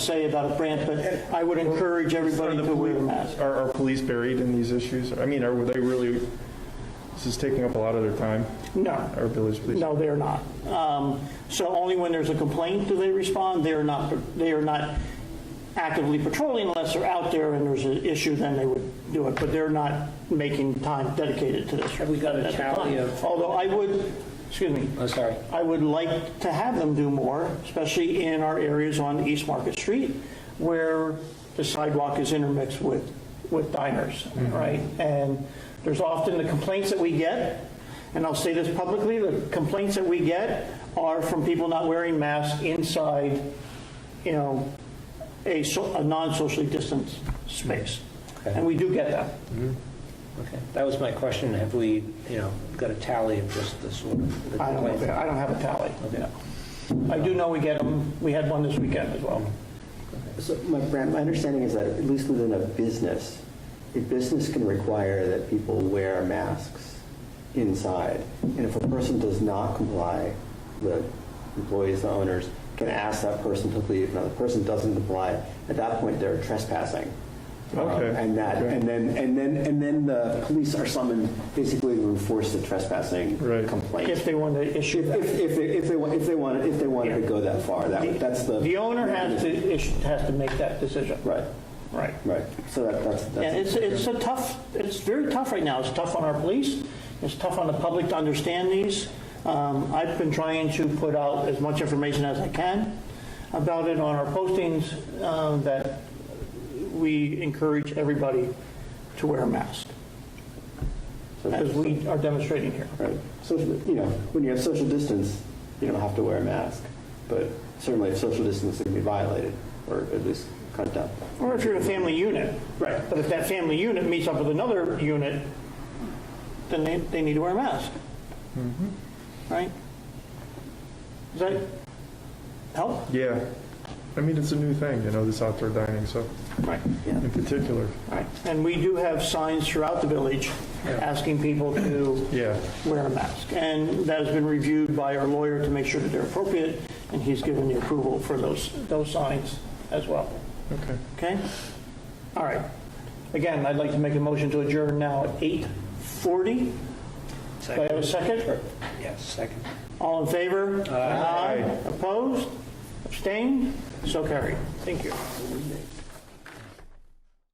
say about a brand, but I would encourage everybody Are the to wear a poli- mask. Are, are police buried in these issues? I mean, are they really, this is taking up a lot of their time, our No, village police? no, they're not. Um, So only when there's a complaint do they respond. They're not, they are not actively patrolling unless they're out there and there's an issue, then they would do it. But they're not making time dedicated to this. Have we got a tally of- Although I would, excuse me. I'm sorry. I would like to have them do more, especially in our areas on East Market Street where the sidewalk is intermixed with, with diners, Mm-hmm. right? And there's often the complaints that we get, and I'll say this publicly, the complaints that we get are from people not wearing masks inside, you know, a, so- a non-socially distanced space. Mm-hmm. Okay. And we do get that. Okay, that was my question. Have we, you know, got a tally of just the sort of... the I don't, complaints? I don't have a tally. Okay. Mm-hmm. I do know we get them, we had one this weekend as well. So my, Brad, my understanding is that at least within a business, a business can require that people wear masks inside. And if a person does not comply, the employees, the owners can ask that person to leave. Now, the person doesn't comply, at that point, they're trespassing. Okay. Um, And that, Okay. and then, and then, and then the police are summoned basically to enforce the trespassing Right. complaint. If they want to issue that. If, if, they- if they, wa- if they want, if they wanted to Yeah. go that far, that, that's the. The owner has to, is- has to make that decision. Right, Right. right. So that, that's, that's. Yeah, it's, it's a tough, it's very tough right now. It's tough on our police, it's tough on the public to understand these. Um, I've been trying to put out as much information as I can about it on our postings, um, that we encourage everybody to wear a mask, So- as we are demonstrating here. Right. So, you know, when you have social distance, you don't have to wear a mask, but certainly if social distancing can be violated, or at least cut down. Or if you're a family unit. Right. But if that family unit meets up with another unit, then they, they need to wear a mask. Right? Does that help? Yeah. I mean, it's a new thing, you know, this outdoor dining, so, Right. in particular, Right. And we do have signs throughout the village asking people to yeah. wear a mask. And that has been reviewed by our lawyer to make sure that they're appropriate, and he's given the approval for those, those signs as well. Okay. Okay? All right. Again, I'd like to make a motion to adjourn now at 8:40. Do I have a second? Yes, second. All in favor? Aye. Opposed? Abstained? So carried. Thank you.